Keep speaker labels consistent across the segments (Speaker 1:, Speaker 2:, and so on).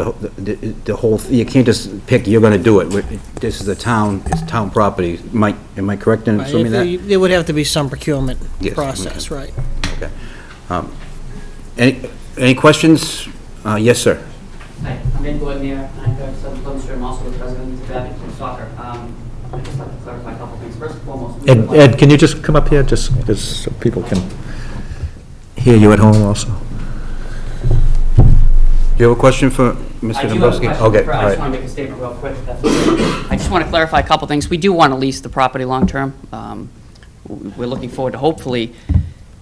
Speaker 1: the, the the whole, you can't just pick, you're gonna do it. This is the town, it's town property. Mike, am I correct in
Speaker 2: Right, if
Speaker 1: assuming that?
Speaker 2: you- There would have to be some procurement
Speaker 1: Yes,
Speaker 2: process, right?
Speaker 1: Okay. Um, Any, any questions? Uh, Yes, sir.
Speaker 3: Hi, I'm Ben Gordonier, I'm Director of Southern Plymouth, I'm also the president of Abington Soccer. Um, I'd just like to clarify a couple things. First and foremost.
Speaker 4: Ed, Ed, can you just come up here, just, just so people can hear you at home also?
Speaker 1: Do you have a question for Mr.
Speaker 3: I do have a
Speaker 1: Dombrowski?
Speaker 3: question.
Speaker 1: Okay,
Speaker 3: I just
Speaker 1: all right.
Speaker 3: want to make a statement real quick. if that's okay. I just want to clarify a couple things. We do want to lease the property long-term. Um, w- We're looking forward to hopefully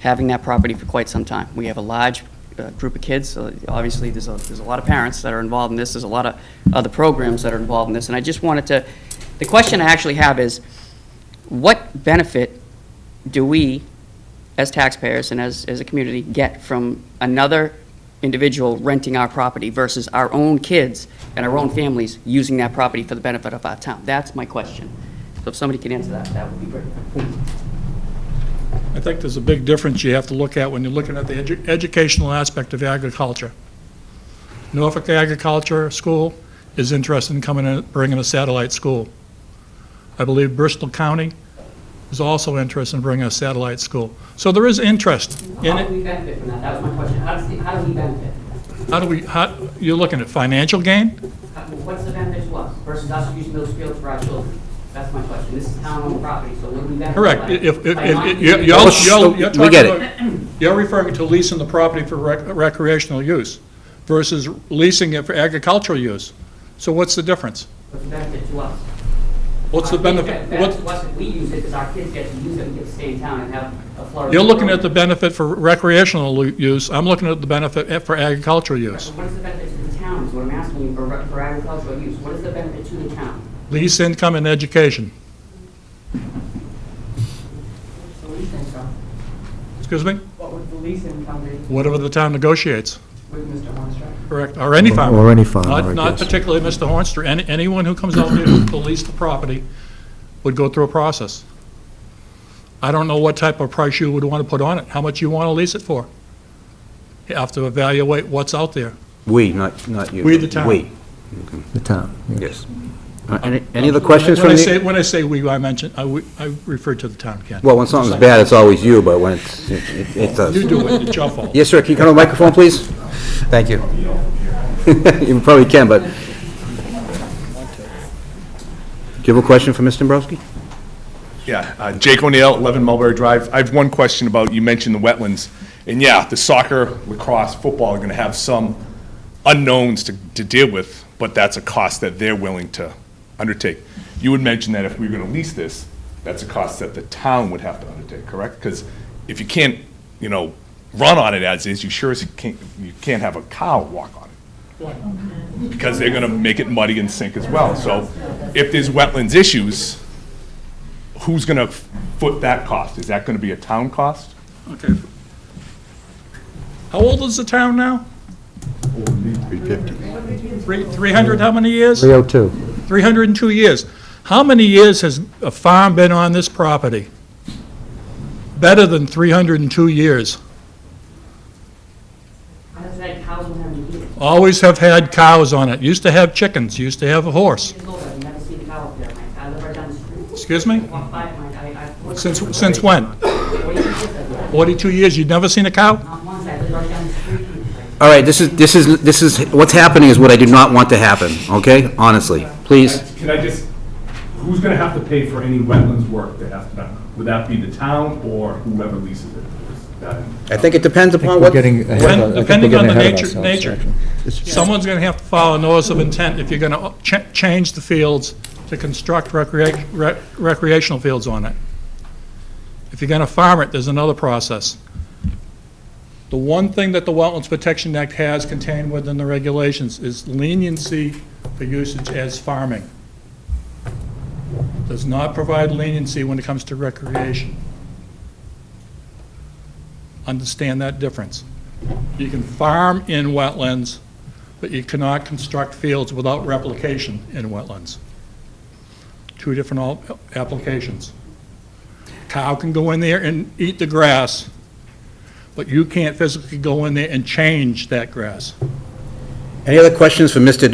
Speaker 3: having that property for quite some time. We have a large uh, group of kids. so Obviously, there's a, there's a lot of parents that are involved in this. There's a lot of other programs that are involved in this. And I just wanted to, the question I actually have is, what benefit do we, as taxpayers and as, as a community, get from another individual renting our property versus our own kids and our own families using that property for the benefit of our town? That's my question. So if somebody can answer that, that would be great.
Speaker 5: I think there's a big difference you have to look at when you're looking at the edu- educational aspect of agriculture. Norfolk Agriculture School is interested in coming and bringing a satellite school. I believe Bristol County is also interested in bringing a satellite school. So there is interest in
Speaker 3: How do
Speaker 5: it.
Speaker 3: we benefit from that? That was my question. How does, the- how do we benefit?
Speaker 5: How do we, how, you're looking at financial gain?
Speaker 3: How- What's the benefit to us versus us using those fields for our children? That's my question. This is town-owned property, so what do we benefit?
Speaker 5: Correct.
Speaker 3: by-
Speaker 5: If, if,
Speaker 3: by not
Speaker 5: if,
Speaker 3: using
Speaker 5: you're,
Speaker 3: it?
Speaker 5: you're
Speaker 1: Well,
Speaker 5: you're- you're
Speaker 1: we
Speaker 5: talking
Speaker 1: get it.
Speaker 5: about, you're referring to leasing the property for rec- recreational use versus leasing it for agricultural use. So what's the difference?
Speaker 3: What's the benefit to us?
Speaker 5: What's the benefit?
Speaker 3: Benefit to
Speaker 5: What-
Speaker 3: us if we use it, because our kids get to use it, we get to stay in town and have a flourishing.
Speaker 5: You're looking at the
Speaker 3: program.
Speaker 5: benefit for recreational lu- use, I'm looking at the benefit eh, for agricultural use.
Speaker 3: But What is the benefit to the town, is what I'm asking you, for re- for agricultural use, what is the benefit to the town?
Speaker 5: Lease income and education.
Speaker 3: So what do you think, John?
Speaker 5: Excuse me?
Speaker 3: What would the lease income be
Speaker 5: Whatever the town negotiates,
Speaker 3: with Mr. Armstrong?
Speaker 5: correct, or any farmer.
Speaker 4: Or any farmer,
Speaker 5: Not-
Speaker 4: I
Speaker 5: Not
Speaker 4: guess.
Speaker 5: particularly Mr. Hornster, any, anyone who comes out here to lease the property would go through a process. I don't know what type of price you would want to put on it, how much you want to lease it for. You have to evaluate what's out there.
Speaker 1: We, not, not you.
Speaker 5: We, the town.
Speaker 1: We,
Speaker 4: The town, yeah.
Speaker 1: yes. Uh, Any, any other questions
Speaker 5: When
Speaker 1: from
Speaker 5: I say,
Speaker 1: the?
Speaker 5: when I say we, I mention, I we- I refer to the town, Ken.
Speaker 1: Well, when something's bad, it's always you, but when it's, it- it- it's us.
Speaker 5: You do it, it's your fault.
Speaker 1: Yes, sir, can you come to the microphone, please? Thank you. You probably can, but... Do you have a question for Mr. Dombrowski?
Speaker 6: Yeah, uh, Jake O'Neill, 11 Mulberry Drive. I have one question about, you mentioned the wetlands. And yeah, the soccer, lacrosse, football are going to have some unknowns to to deal with, but that's a cost that they're willing to undertake. You would mention that if we were going to lease this, that's a cost that the town would have to undertake, correct? Because if you can't, you know, run on it as is, you sure as can't, you can't have a cow walk on it because they're going to make it muddy and sink as well. So if there's wetlands issues, who's going to foot that cost? Is that going to be a town cost?
Speaker 5: Okay. How old is the town now? 350. 300, how many years?
Speaker 4: 302.
Speaker 5: 302 years. How many years has a farm been on this property? Better than 302 years.
Speaker 3: How does that cows will have to eat it?
Speaker 5: Always have had cows on it, used to have chickens, used to have a horse.
Speaker 3: Years old, I've never seen a cow up there, Mike, I live right down the street.
Speaker 5: Excuse me?
Speaker 3: Walk by it, Mike, I, I.
Speaker 5: Since, since when?
Speaker 3: What do you think of that?
Speaker 5: 42 years, you've never seen a cow?
Speaker 3: Not once, I live right down the street.
Speaker 1: All right, this is, this is, this is, what's happening is what I do not want to happen, okay? Honestly, please.
Speaker 7: Can I just, who's gonna have to pay for any wetlands work that has to be done? Would that be the town or whoever leases it? Is that-
Speaker 1: I think it depends
Speaker 4: I think
Speaker 1: upon
Speaker 4: we're
Speaker 1: what...
Speaker 4: getting ahead of- I think we're
Speaker 5: Depending on
Speaker 4: getting
Speaker 5: the
Speaker 4: ahead of
Speaker 5: nature-
Speaker 4: ourselves,
Speaker 5: nature.
Speaker 4: actually.
Speaker 5: Someone's going to have to file a notice of intent if you're going to change the fields to construct recreat- rec- recreational fields on it. If you're going to farm it, there's another process. The one thing that the Wetlands Protection Act has contained within the regulations is leniency for usage as farming. Does not provide leniency when it comes to recreation. Understand that difference. You can farm in wetlands, but you cannot construct fields without replication in wetlands. Two different al- applications. Cow can go in there and eat the grass, but you can't physically go in there and change that grass.
Speaker 1: Any other questions for Mr.